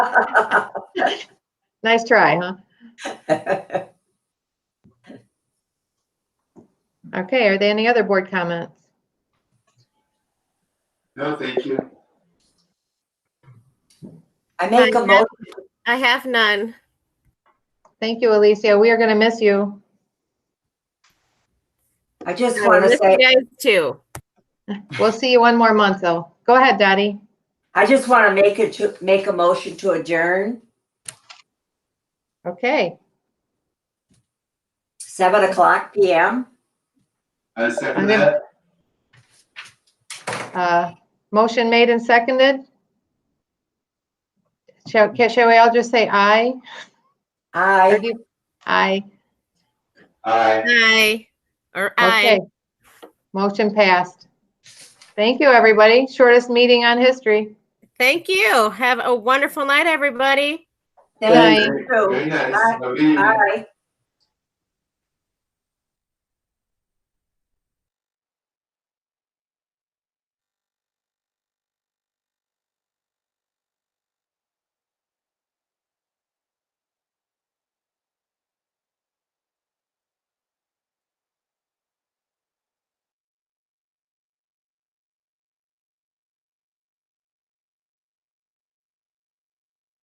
Nice try, huh? Okay, are there any other board comments? No, thank you. I make a motion, I have none. Thank you, Alicia. We are going to miss you. I just I want to miss say, you guys too. We'll see you one more month, though. Go ahead, Dottie. I just want to make it, to make a motion to adjourn, Okay, seven o'clock PM. I second Okay. that. uh, motion made and seconded. Shall, ca- shall we all just say aye? Or I, do you- Aye. Aye. Aye. Or Okay. I. Motion passed. Thank you, everybody. Shortest meeting on history. Thank you. Have a wonderful night, everybody. Good night. thank you. Very nice. Have a good evening. Aye.